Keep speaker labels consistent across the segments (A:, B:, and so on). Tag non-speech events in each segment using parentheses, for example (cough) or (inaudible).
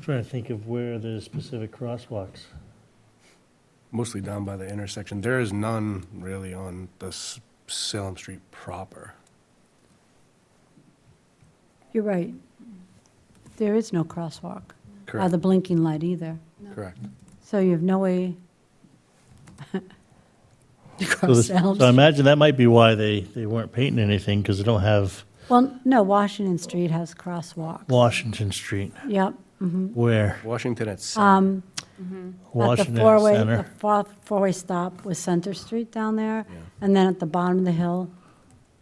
A: Trying to think of where there's specific crosswalks.
B: mostly down by the intersection. There is none really on the S- Salem Street proper.
C: You're right. There is no crosswalk, or
B: Correct,
C: the blinking light either.
B: correct.
C: So you have no way (laughs) to
A: So
C: cross
A: this-
C: Salem.
A: So I
C: Street.
A: imagine that might be why they, they weren't painting anything, because they don't have
C: Well, no, Washington Street has crosswalks.
A: Washington Street.
C: Yep. mhm.
A: Where?
B: Washington at Salem.
C: Um, At the
A: Washington
C: four-way, the
A: Center.
C: four- four-way stop was Center Street down there,
B: Yeah.
C: and then at the bottom of the hill,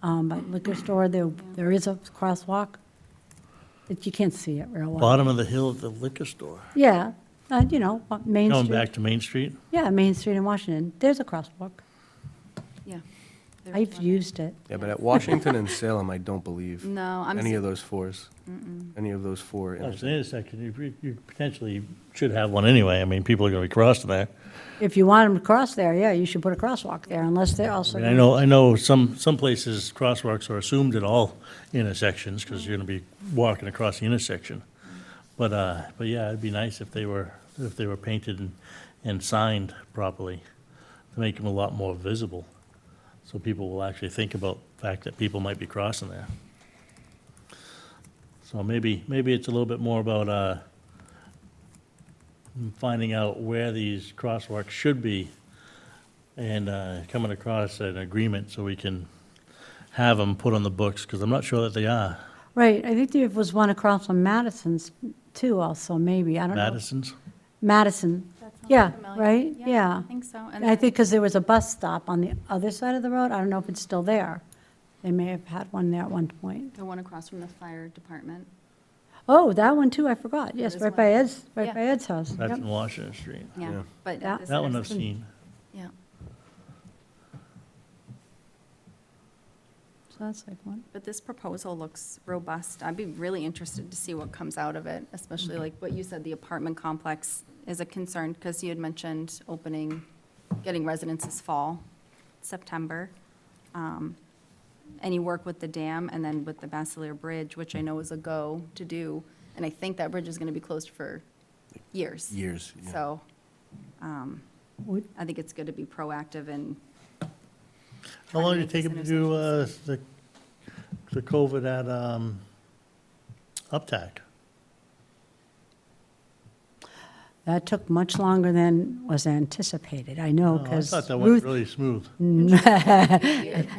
C: um, by the liquor store, there, there is a crosswalk, but you can't see it real well.
A: Bottom of the hill at the liquor store.
C: Yeah, uh, you know, uh, Main
A: Going back
C: Street,
A: to Main Street?
C: yeah, Main Street in Washington, there's a crosswalk.
D: Yeah. There's
C: I've
D: one.
C: used it.
B: Yeah, but at Washington and Salem, I don't believe
D: (laughs) No, I'm,
B: any
D: s-
B: of those fours, any of those four.
A: Well, it's
B: intersections.
A: an intersection, you, pre- you potentially should have one anyway, I mean, people are gonna be crossing there.
C: If you want them to cross there, yeah, you should put a crosswalk there, unless they're
A: I
C: also.
A: mean, I know, I know some, some places crosswalks are assumed at all intersections, because you're gonna be walking across the intersection. But, uh, but yeah, it'd be nice if they were, if they were painted and, and signed properly, to make them a lot more visible, so people will actually think about the fact that people might be crossing there. So maybe, maybe it's a little bit more about, uh, finding out where these crosswalks should be and uh, coming across an agreement so we can have them put on the books, because I'm not sure that they are.
C: Right, I think there was one across from Madison's too also, maybe, I don't know.
A: Madison's?
C: Madison,
D: that sounds
C: yeah,
D: familiar.
C: right,
D: I
C: yeah.
D: think so.
C: I think because there was a bus stop on the other side of the road, I don't know if it's still there. They may have had one there at one point.
D: The one across from the fire department.
C: Oh, that one too, I forgot, yes,
D: is
C: right
D: one.
C: by Ed's, right
D: Yeah.
C: by Ed's house.
A: That's
C: Yep.
A: in Washington Street.
D: Yeah,
B: Yeah.
D: but.
C: Yeah.
D: this
A: That one I've
D: intersection-
A: seen.
D: Yeah,
C: So that's like one.
D: but this proposal looks robust. I'd be really interested to see what comes out of it, especially like what you said, the apartment complex is a concern, because you had mentioned opening, getting residents this fall, September. Um, Any work with the dam and then with the Basileir Bridge, which I know is a go to do, and I think that bridge is going to be closed for years.
B: Years, yeah.
D: So um,
C: Would-
D: I think it's good to be proactive and
A: How
D: Trying
A: long did
D: to
A: it
D: make
A: take
D: this
A: them to do uh, the, the COVID at um, Uptack?
C: That took much longer than was anticipated, I know,
A: Oh, I
C: because
A: thought that went
C: Ruth,
A: really smooth.
C: (laughs)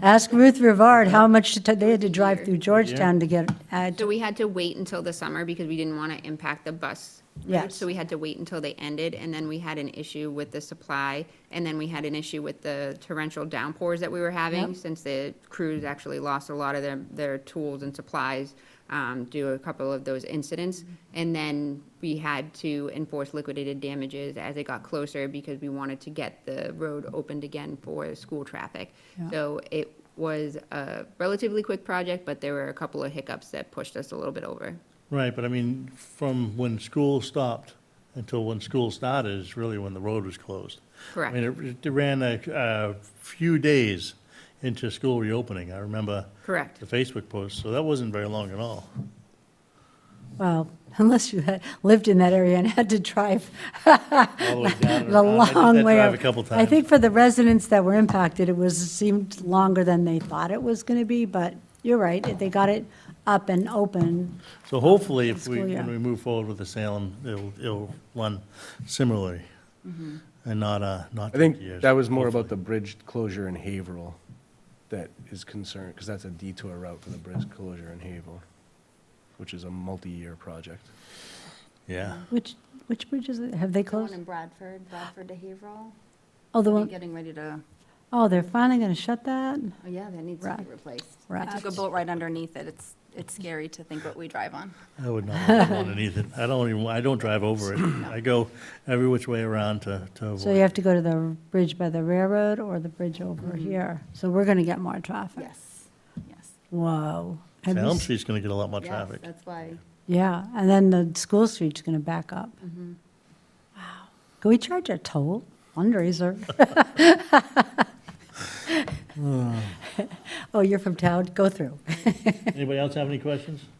C: ask Ruth Rivard how much it took- they had to drive through Georgetown to get, uh,
E: So we had to wait until the summer because we didn't want to impact the bus. routes,
C: Yes.
E: So we had to wait until they ended, and then we had an issue with the supply, and then we had an issue with the torrential downpours that we were having,
C: Yep.
E: since the crews actually lost a lot of their, their tools and supplies um, due to a couple of those incidents.
C: Mm-hmm.
E: And then we had to enforce liquidated damages as it got closer, because we wanted to get the road opened again for school traffic.
C: Yeah.
E: So it was a relatively quick project, but there were a couple of hiccups that pushed us a little bit over.
A: Right, but I mean, from when school stopped until when school started is really when the road was closed.
E: Correct.
A: I mean, it- it ran a, a few days into school reopening, I remember.
E: Correct.
A: The Facebook post, so that wasn't very long at
C: (laughs)
A: all.
C: well, (laughs) unless you had lived in that area and had to drive
A: All the way down
C: (laughs)
A: and
C: the
A: around. I did
C: long
A: that
C: way.
A: drive
C: of-
A: a couple
C: I
A: times.
C: think for the residents that were impacted, it was, seemed longer than they thought it was going to be, but you're right, they got it up and open.
A: So hopefully, if we,
C: School, yeah.
A: when we move forward with the Salem, it'll, it'll run similarly
C: Mm-hmm.
A: and not, uh, not
B: I
A: 50
B: think
A: years.
B: that was more about the bridge closure in Haverhill that is concerned, because that's a detour route for the bridge closure in Haverhill, which is a multi-year project.
A: Yeah.
C: Which, which bridges, have they
D: the one
C: closed?
D: in Bradford, Bradford to Haverhill.
C: Oh, the
A: uh,
D: They're
C: one,
D: Getting ready to,
C: oh, they're finally going to shut that?
D: oh yeah, that needs to be
C: Right.
D: replaced. I
C: Right.
D: took a boat ride underneath it. It's, it's scary to think what we drive on.
A: I would not want to
C: (laughs)
A: go underneath it. I don't even, I don't drive over it. I go every which way around to, to
C: So you
A: avoid.
C: have to go to the bridge by the railroad or the bridge over
A: Mm-hmm.
C: here. So we're going to get more traffic.
D: Yes, yes.
C: Whoa. Have you
A: Salem
C: s-
A: Street's going to get a lot more
D: Yes,
A: traffic.
D: That's why,
C: Yeah, and then the school street's going to back up. Wow. Can we charge a toll fundraiser? (laughs) Oh, you're from town? Go through.
A: Anybody else have any questions?